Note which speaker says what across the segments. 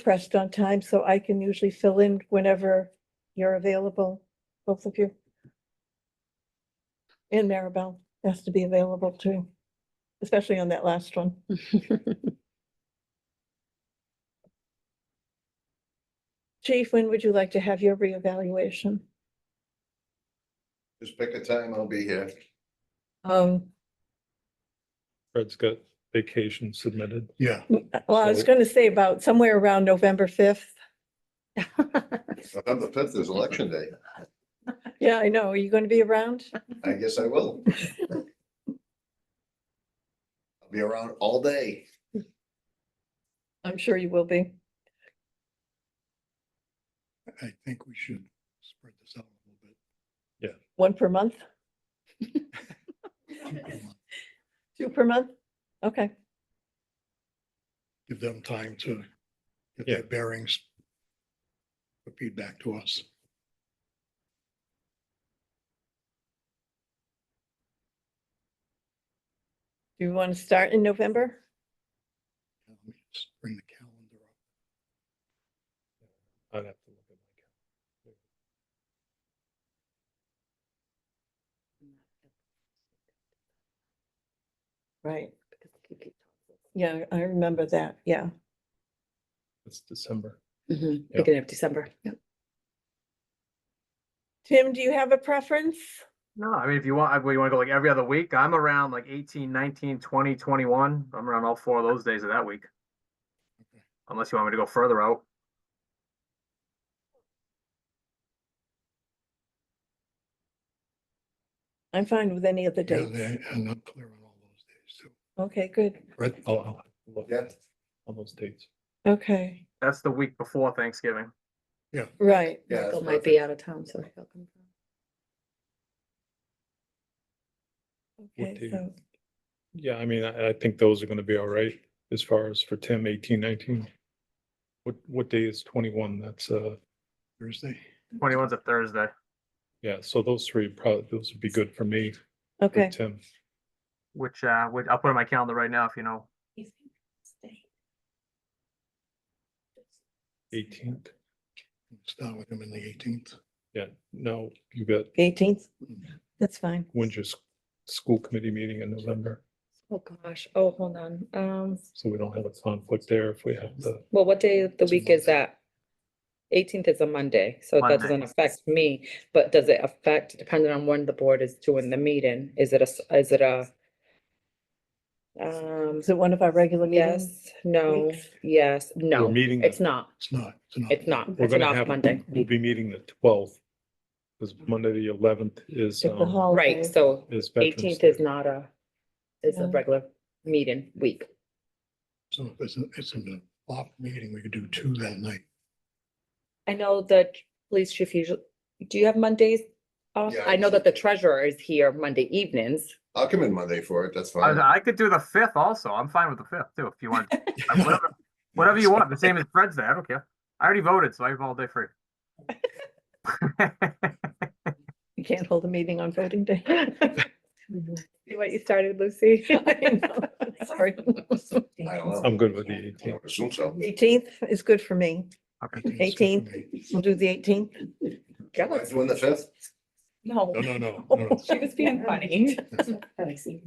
Speaker 1: pressed on time, so I can usually fill in whenever you're available, both of you. And Maribel has to be available too, especially on that last one. Chief, when would you like to have your reevaluation?
Speaker 2: Just pick a time, I'll be here.
Speaker 1: Um,
Speaker 3: Fred's got vacation submitted.
Speaker 4: Yeah,
Speaker 1: well, I was
Speaker 3: So-
Speaker 1: gonna say about somewhere around November fifth.
Speaker 2: November fifth is election day.
Speaker 1: Yeah, I know. Are you gonna be around?
Speaker 2: I guess I will. I'll be around all day.
Speaker 1: I'm sure you will be.
Speaker 4: I think we should spread this out a
Speaker 1: One per month,
Speaker 4: little bit.
Speaker 1: two per month? Okay,
Speaker 4: Give them time to get
Speaker 3: Yeah.
Speaker 4: their bearings. For feedback to us.
Speaker 1: do you want to start in November?
Speaker 4: Let me just Um, Bring the calendar up.
Speaker 3: I'd have to look at my calendar.
Speaker 1: Right. Yeah, I remember that, yeah.
Speaker 3: It's December.
Speaker 5: Mhm,
Speaker 3: Yeah.
Speaker 5: Beginning of December.
Speaker 1: Tim, do you have a preference?
Speaker 6: No, I mean, if you want, if you want to go like every other week, I'm around like 18, 19, 20, 21. I'm around all four of those days of that week.
Speaker 4: Okay.
Speaker 6: Unless you want me to go further out.
Speaker 1: I'm fine with any of the
Speaker 4: Yeah,
Speaker 1: dates.
Speaker 4: they- I'm not clear on all those days, so.
Speaker 1: Okay, good.
Speaker 4: Brett,
Speaker 3: I'll, I'll have to look
Speaker 2: Yeah.
Speaker 3: on those dates.
Speaker 1: Okay,
Speaker 6: That's the week before Thanksgiving.
Speaker 1: right.
Speaker 2: Yeah,
Speaker 5: Michael
Speaker 2: that's
Speaker 5: might be out of town, so he'll come.
Speaker 1: Okay,
Speaker 3: do?
Speaker 1: so
Speaker 3: Yeah, I mean, I, I think those are gonna be all right as far as for Tim, eighteen, nineteen. What, what day is twenty-one? That's, uh,
Speaker 4: Thursday,
Speaker 6: 21's a Thursday.
Speaker 3: yeah, so those three probably, those would be good for me, for
Speaker 1: Okay,
Speaker 3: Tim.
Speaker 6: Which uh, which I'll put on my calendar right now if you know.
Speaker 3: Eighteenth,
Speaker 4: start with them in the eighteenth.
Speaker 3: yeah, no, you got
Speaker 1: eighteenth, that's fine.
Speaker 3: winter s- school committee meeting in November,
Speaker 5: Oh, gosh. Oh, hold on. Um,
Speaker 3: so we don't have a conflict there if we have the,
Speaker 5: well, what day of the
Speaker 4: It's a
Speaker 5: week is
Speaker 4: Monday.
Speaker 5: that? Eighteenth is a Monday, so
Speaker 6: Monday.
Speaker 5: that doesn't affect me, but does it affect, depending on when the board is doing the meeting, is it a, s- is it a? Um,
Speaker 1: Is it one of our regular meetings?
Speaker 5: yes, no,
Speaker 1: Weeks?
Speaker 5: yes,
Speaker 3: we're
Speaker 5: no,
Speaker 3: meeting. the-
Speaker 5: it's not,
Speaker 4: It's not, it's not.
Speaker 5: it's not,
Speaker 3: We're
Speaker 5: it's an
Speaker 3: gonna
Speaker 5: off
Speaker 3: have,
Speaker 5: Monday.
Speaker 3: we'll be meeting the twelfth. Cause Monday, the eleventh is,
Speaker 1: It's a
Speaker 3: um,
Speaker 1: holiday.
Speaker 5: Right, so
Speaker 3: is Veterans
Speaker 5: eighteenth
Speaker 3: Day.
Speaker 5: is not a, is a
Speaker 1: No.
Speaker 5: regular meeting week.
Speaker 4: So if it's, a- it's an off meeting, we could do two that night.
Speaker 5: I know the t- police chief usually, do you have Mondays? off?
Speaker 2: Yeah,
Speaker 5: I know that the
Speaker 2: usually.
Speaker 5: treasurer is here Monday evenings.
Speaker 2: I'll come in Monday for it, that's fine.
Speaker 6: I, I could do the 5th also. I'm fine with the 5th too if you want. whatever, whatever you want. The same as Fred's Day. I don't care. I already voted, so I have all day free.
Speaker 1: You can't hold a meeting on voting day.
Speaker 5: See what you started, Lucy?
Speaker 1: I know, Sorry.
Speaker 2: I don't know.
Speaker 3: I'm good with the
Speaker 2: I
Speaker 3: eighteenth.
Speaker 2: would Assume so.
Speaker 1: Eighteenth is good for me. Eighteenth, we'll do the eighteenth.
Speaker 2: Am I Doing the fifth?
Speaker 5: No.
Speaker 4: No, no, no, no, no.
Speaker 5: She was being funny.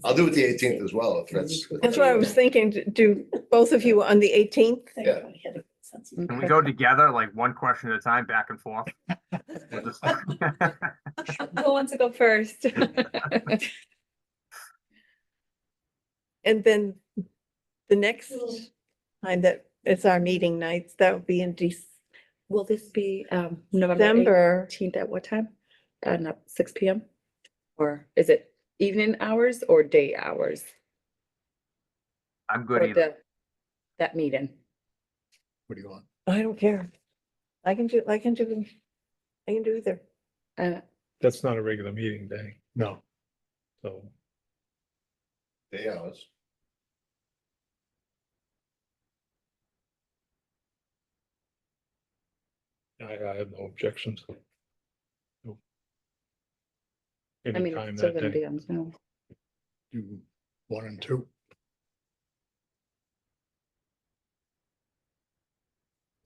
Speaker 2: I'll do it the eighteenth as well, if that's.
Speaker 1: That's what I was thinking, to do both of you on the eighteenth?
Speaker 2: Yeah.
Speaker 6: Can we go together, like one question at a time, back and forth? We'll just-
Speaker 5: Who wants to go first?
Speaker 1: And then the next time that it's our meeting nights, that would be in Dec-
Speaker 5: Will this be um November
Speaker 1: December.
Speaker 5: eighteenth at what time? Uh, not six P M? Or is it evening hours or day hours?
Speaker 6: I'm good
Speaker 5: for
Speaker 6: either.
Speaker 5: the That meeting?
Speaker 4: What do you want?
Speaker 1: I don't care. I can do, I can do, I can do either.
Speaker 5: Uh,
Speaker 3: That's not a regular meeting day,
Speaker 4: No,
Speaker 3: so
Speaker 2: Day hours.
Speaker 3: I, I have no objections. No.
Speaker 5: I mean,
Speaker 3: Anytime
Speaker 5: it's still
Speaker 3: that
Speaker 5: gonna
Speaker 3: day,
Speaker 5: be on Zoom.
Speaker 4: do one and two.